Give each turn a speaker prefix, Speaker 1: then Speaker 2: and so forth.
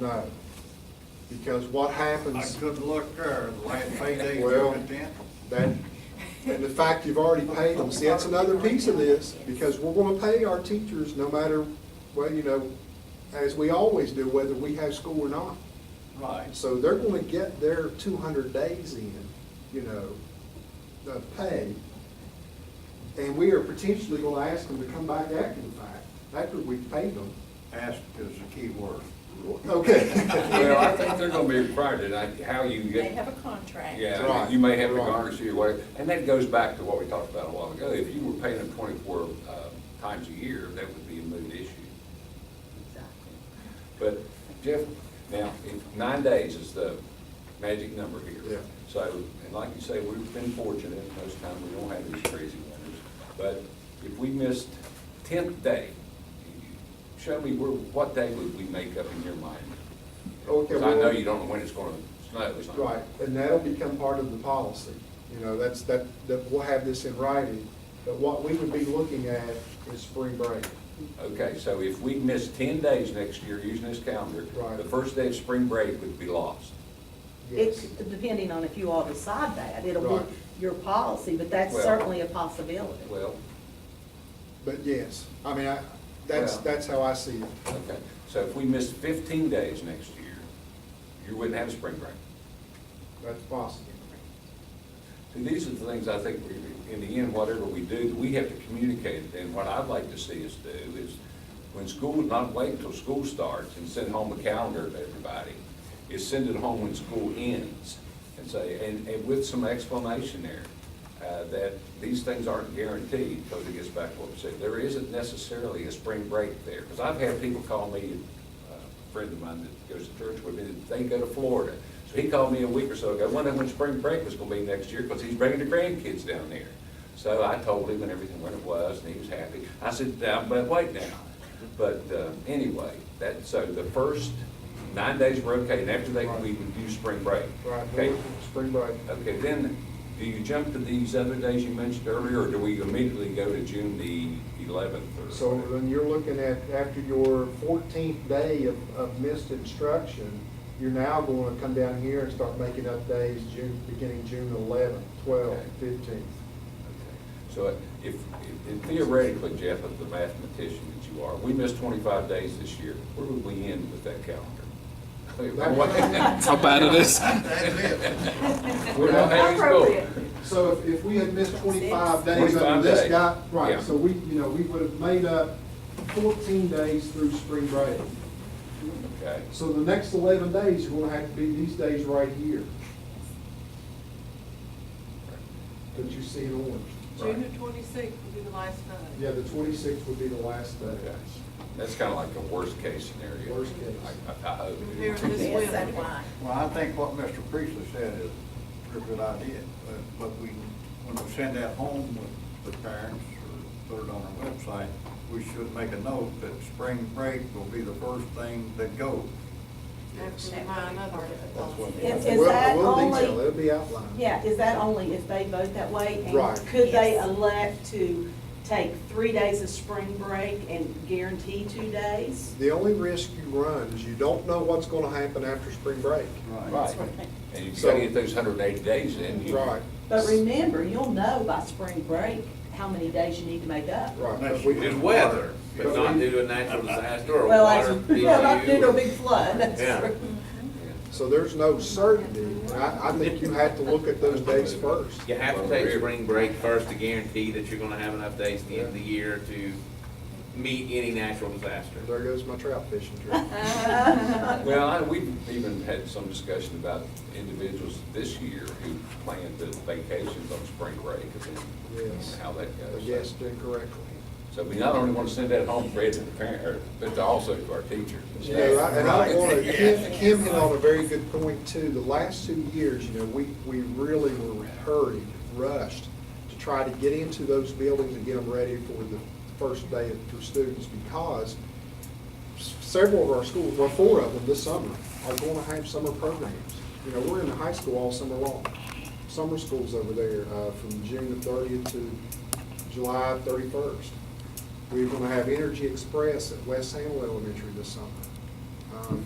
Speaker 1: No. Because what
Speaker 2: I
Speaker 1: happens,
Speaker 2: could look there, the last payday,
Speaker 1: Well-
Speaker 2: took a dent.
Speaker 1: that, and the fact you've already paid them, see, that's another piece of this, because we're gonna pay our teachers no matter, well, you know, as we always do, whether we have school or not.
Speaker 2: Right,
Speaker 1: So they're gonna get their two hundred days in, you know, of pay. And we are potentially gonna ask them to come back after the fact, after we've paid them.
Speaker 2: ask is the key word.
Speaker 1: Okay.
Speaker 3: Well, I think they're gonna be required to, like, how you
Speaker 4: They
Speaker 3: get,
Speaker 4: have a contract.
Speaker 3: yeah,
Speaker 1: Right,
Speaker 3: you may have to
Speaker 1: right.
Speaker 3: garnish your way, and that goes back to what we talked about a while ago. If you were paying them twenty-four, uh, times a year, that would be a moot issue. But Jeff, now, if nine days is the magic number
Speaker 1: Yeah.
Speaker 3: here. So, and like you say, we've been fortunate, most times we don't have these crazy winters. But if we missed tenth day, show me where, what day would we make up in your mind?
Speaker 1: Okay,
Speaker 3: Because I know
Speaker 1: well-
Speaker 3: you don't know when it's gonna snow, it's not.
Speaker 1: Right, and that'll become part of the policy. You know, that's, that, that we'll have this in writing, but what we would be looking at is spring break.
Speaker 3: Okay, so if we miss ten days next year using this calendar,
Speaker 1: Right.
Speaker 3: the first day of spring break would be lost.
Speaker 1: Yes.
Speaker 5: It, depending on if you all decide that, it'll
Speaker 1: Right.
Speaker 5: be your policy, but that's
Speaker 3: Well-
Speaker 5: certainly a possibility.
Speaker 3: Well,
Speaker 1: But yes, I mean, I, that's,
Speaker 3: Well-
Speaker 1: that's how I see it.
Speaker 3: okay, so if we missed fifteen days next year, you wouldn't have a spring break.
Speaker 1: That's possible.
Speaker 3: See, these are the things I think, we- in the end, whatever we do, we have to communicate. And what I'd like to see us do is, when school, not wait until school starts and send home a calendar to everybody, is send it home when school ends, and say, and, and with some explanation there, uh, that these things aren't guaranteed, because it gets back to what we said, there isn't necessarily a spring break there. Because I've had people call me, uh, a friend of mine that goes to church with me, that they go to Florida. So he called me a week or so ago, wondering when spring break was gonna be next year, because he's bringing the grandkids down there. So I told him and everything when it was, and he was happy. I said, "Now, but wait now. But uh, anyway, that, so the first nine days were okay, and after that, we would do spring break.
Speaker 1: Right, we're
Speaker 3: Okay,
Speaker 1: looking at spring break.
Speaker 3: okay, then, do you jump to these other days you mentioned earlier, or do we immediately go to June the eleventh or?
Speaker 1: So
Speaker 3: whatever?
Speaker 1: then you're looking at, after your fourteenth day of, of missed instruction, you're now going to come down here and start making up days, June, beginning June eleventh, twelfth,
Speaker 3: Okay.
Speaker 1: fifteenth.
Speaker 3: So if, if theoretically, Jeff, as the mathematician that you are, we missed twenty-five days this year, where would we end with that calendar?
Speaker 6: How bad it is.
Speaker 2: That's it.
Speaker 3: We don't have any school.
Speaker 1: So if, if we had missed twenty-five days under
Speaker 3: 25
Speaker 1: this
Speaker 3: days.
Speaker 1: guy, right,
Speaker 3: Yeah.
Speaker 1: so we, you know, we would have made up fourteen days through spring break.
Speaker 3: Okay,
Speaker 1: So the next eleven days are gonna have to be these days right here that you see in orange.
Speaker 7: June the twenty-sixth will be the last time.
Speaker 1: Yeah, the twenty-sixth would be the last day.
Speaker 3: okay. That's kind of like the worst-case scenario.
Speaker 1: Worst case.
Speaker 3: I, I hope.
Speaker 7: Here this
Speaker 4: Yes,
Speaker 7: winter.
Speaker 4: that's why.
Speaker 2: Well, I think what Mr. Priestley said is a good idea, but, but we, when we send that home with the parents or put it on our website, we should make a note that spring break will be the first thing that goes.
Speaker 7: That's my another.
Speaker 2: That's what-
Speaker 5: Is,
Speaker 1: We'll-
Speaker 5: is that
Speaker 1: we'll detail it.
Speaker 5: only,
Speaker 1: It'll be outlined.
Speaker 5: yeah, is that only if they vote that way? And
Speaker 1: Right.
Speaker 5: Could they
Speaker 4: Yes.
Speaker 5: elect to take three days of spring break and guarantee two days?
Speaker 1: The only risk you run is you don't know what's gonna happen after spring break.
Speaker 3: Right, and you've got to get those hundred and eighty days in. you-
Speaker 1: Right,
Speaker 5: But remember, you'll know by spring break how many days you need to make up.
Speaker 1: right.
Speaker 2: Unless
Speaker 1: but we-
Speaker 2: you
Speaker 8: Did weather, but
Speaker 1: But
Speaker 8: not
Speaker 1: we-
Speaker 8: due to a natural disaster or
Speaker 5: Well,
Speaker 8: water
Speaker 5: that's, yeah, not due to a
Speaker 8: issue.
Speaker 5: big flood, that's
Speaker 8: Yeah.
Speaker 5: true.
Speaker 4: Mm-hmm.
Speaker 1: So there's no certainty. I, I think you have to look at those days first.
Speaker 8: You have to take spring break first to guarantee that you're gonna have enough days at the end of the year to meet any natural disaster.
Speaker 1: There goes my trout fishing trip.
Speaker 3: Well, I, we've even had some discussion about individuals this year who planned the vacations on spring break and then
Speaker 1: Yes.
Speaker 3: how that
Speaker 1: I
Speaker 3: goes.
Speaker 1: guessed incorrectly.
Speaker 3: So we not only want to send that home for to the parent, or- but to also to our teachers. and
Speaker 1: You know, I- and I
Speaker 3: staff.
Speaker 1: don't wanna, Kim, Kim hit on a very good point too. The last two years, you know, we, we really were hurried, rushed to try to get into those buildings and get them ready for the first day of- for students because s- several of our schools, well, four of them this summer, are gonna have summer programs. You know, we're in the high school all summer long. Summer school's over there, uh, from June the thirtieth to July thirty-first. We're gonna have Energy Express at West Hamlin Elementary this summer. Um,